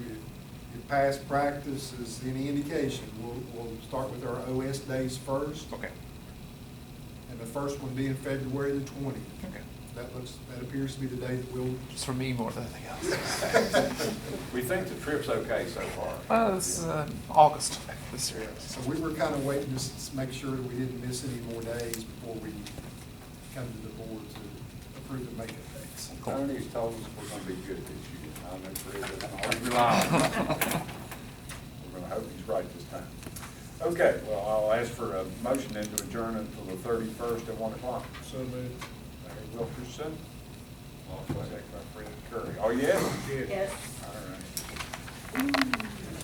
past practice is any indication, we'll, we'll start with our OS days first, Okay, and the first one being February the twentieth. okay. That looks, that appears to be the day that we'll. It's for me more than anything else. We think the trip's okay so far. Well, it's uh, August this year. So we were kind of waiting to s- s- make sure that we didn't miss any more days before we come to the board to approve the makeup dates. Tony's told us we're gonna be good this year. I know Fred doesn't always rely on us. We're gonna hope he's right this time. Okay, well, I'll ask for a motion then to adjourn until the thirty-first at one o'clock. So moved. Larry Wilkerson. All second by Fred Curry. Oh, yes? Yes. All right.